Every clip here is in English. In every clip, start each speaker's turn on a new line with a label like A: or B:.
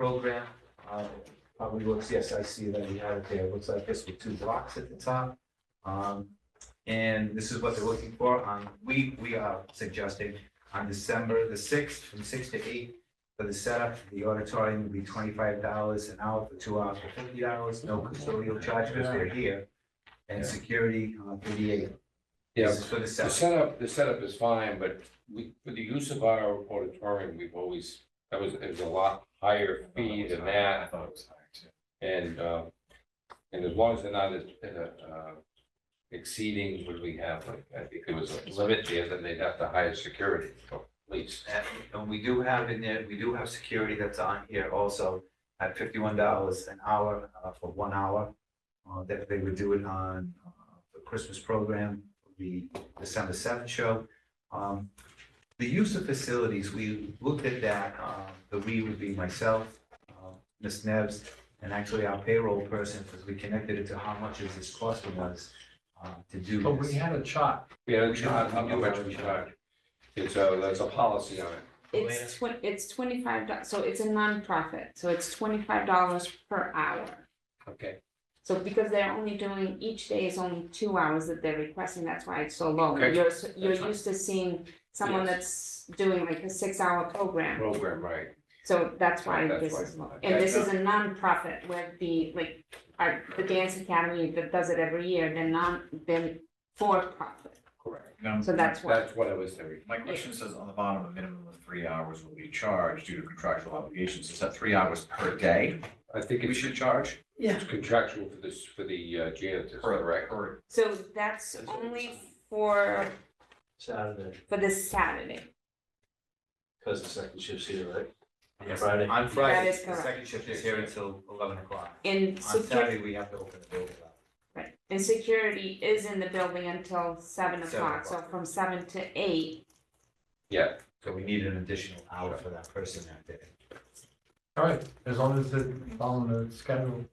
A: program. Uh, Probably looks, yes, I see that he had it there. Looks like this with two blocks at the top. Um, And this is what they're looking for. Um, We, we are suggesting on December the sixth, from six to eight for the setup. The auditorium will be twenty-five dollars an hour for two hours for fifty hours, no custodial charge because they're here. And security, uh, thirty-eight.
B: Yeah,
A: This is for the
B: the
A: setup.
B: setup, the setup is fine, but we, for the use of our auditorium, we've always, that was, it was a lot higher fee than
C: I
B: that.
C: thought it was higher too.
B: And, uh, and as long as they're not, uh, uh, exceeding what we have, like, I think there was a limit there, then they'd have to hire security, or police.
A: And, and we do have in there, we do have security that's on here also at fifty-one dollars an hour, uh, for one hour. Uh, that they would do it on, uh, the Christmas program, the December seventh show. Um, the use of facilities, we looked at that, um, the we would be myself, uh, Ms. Neves, and actually our payroll person, because we connected it to how much is this costing us, uh, to do
B: Oh,
C: But we
A: this.
C: had a chart.
B: We had a charge, how much we charge. And so there's uh, a policy on it.
D: It's twen- it's twenty-five, do- so it's a nonprofit, so it's twenty-five dollars per hour.
B: Okay.
D: So because they're only doing, each day is only two hours that they're requesting, that's why it's so low.
B: Okay,
D: You're, s- you're
B: fine.
D: used to seeing someone that's doing like a six-hour program,
B: Program, right.
D: so that's why
B: That's
D: this
B: why.
D: is low. And this is a nonprofit where the, like, our, the dance academy that does it every year, they're non, they're for-profit,
B: Correct.
C: Now,
D: so that's why.
B: That's what I was thinking.
C: my question says on the bottom, a minimum of three hours will be charged due to contractual obligations. Is that three hours per day
B: I think
C: we
B: it's
C: should charge?
B: it's contractual for this, for the uh, janitors, correct?
C: Or
D: So that's only for,
E: Saturday,
D: for this Saturday.
E: because the second shift's here, right?
A: Yes.
E: Friday.
A: On Friday,
D: is
A: the second shift is here until eleven o'clock.
D: And
A: On
D: security,
A: Saturday, we have to open the building up.
D: right, and security is in the building until
A: Seven
D: seven o'clock, so
A: o'clock.
D: from seven to eight.
B: Yeah,
A: So we need an additional hour for that person that day.
F: All right, as long as they're following the schedule.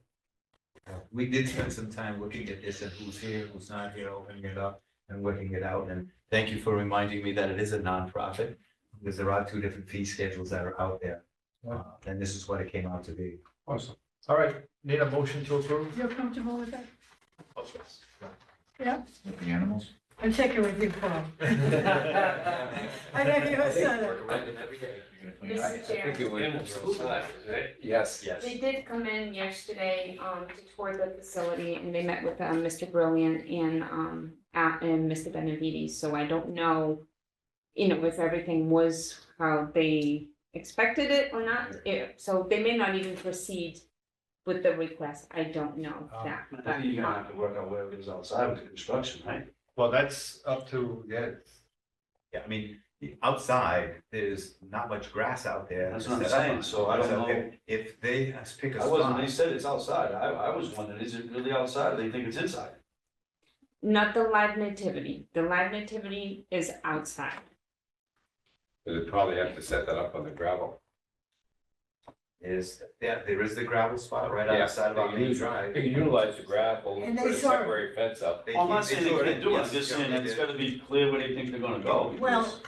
A: Uh, We did spend some time looking at this and who's here, who's not here, opening it up and working it out. And thank you for reminding me that it is a nonprofit. Because there are two different fee schedules that are out there. Uh, And this is what it came out to be.
F: Awesome. All right, need a motion to approve?
G: You're comfortable with that?
C: with the animals?
G: I'm checking with you, Paul. I know you said it.
C: You're gonna clean it up?
B: I think it was. Yes.
E: Yes.
D: They did come in yesterday, um, to tour the facility and they met with, um, Mr. Brilliant and, um, uh, and Mr. Benavides, so I don't know. You know, if everything was how they expected it or not, It- so they may not even proceed with the request, I don't know
F: Oh.
D: that,
E: Um, I
D: but.
E: think you're gonna have to work out where it is outside with the construction, right?
F: Well, that's up to, yeah,
A: Yeah, I mean, outside, there's not much grass out there.
E: That's what I'm saying, so I don't
A: So
E: know.
A: if- If they pick a
E: I wasn't, they
A: spot,
E: said it's outside. I, I was wondering, is it really outside? They think it's inside.
D: Not the live nativity. The live nativity is outside.
B: They'd probably have to set that up on the gravel.
A: is, yeah, there is the gravel spot right
B: Yeah.
A: outside of our main drive.
B: They can utilize the gravel,
G: And they
B: put a
G: sort of-
B: temporary fence up.
A: They
E: Well, I'm not
A: keep-
E: saying they
A: do
E: can't do it, I'm
A: Yes,
E: just saying
A: yeah,
E: it's
A: they
E: gotta be clear where they think they're gonna go.
G: Well,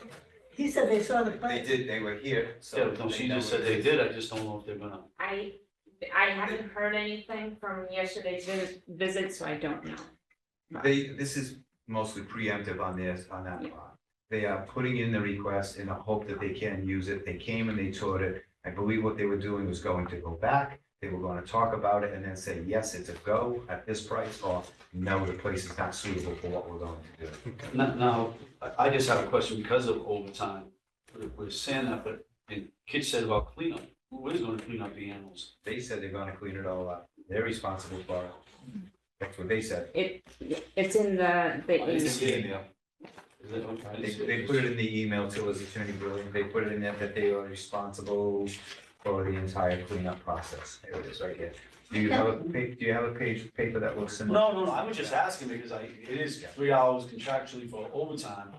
G: he said they saw the
A: did. They
G: plan.
A: did, they were here, so.
E: Yeah, no,
A: they
E: she just
A: know
E: said
A: where
E: they
A: it is.
E: did, I just don't know if they're gonna.
D: I, I haven't heard anything from yesterday's vi- visit, so I don't know.
A: They, this is mostly preemptive on this, on that
D: Yeah.
A: part. They are putting in the request in the hope that they can use it. They came and they toured it. I believe what they were doing was going to go back. They were gonna talk about it and then say, yes, it's a go at this price, or no, the place is not suitable for what we're going to do.
E: Now, now, I, I just have a question because of overtime. We're- We're saying that, but, and Kit said about cleanup, who is gonna clean up the animals?
A: They said they're gonna clean it all up. They're responsible for it. That's what they said.
D: It, it's in the,
E: Why is
D: the,
E: it- Is that okay?
A: They, they put it in the email to us, Attorney Brilliant, they put it in there that they are responsible for the entire cleanup process. There it is, right here. Do you have a, pa- do you have a page, paper that looks similar?
E: No, no, no, I was just asking because I, it is three hours contractually for overtime.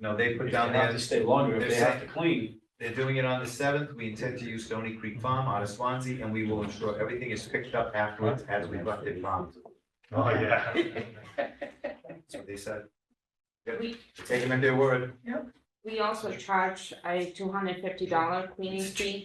A: No, they put
E: If
A: down
E: they have
A: there,
E: to stay longer, if
A: they're
E: they have to
A: saying-
E: clean.
A: they're doing it on the seventh, we intend to use Stony Creek Farm out of Swansea, and we will ensure everything is picked up afterwards as we left it farm.
F: oh, yeah.
A: That's what they said. Yep.
D: We-
A: Take them at their word.
D: we also charge a two hundred fifty dollar cleaning fee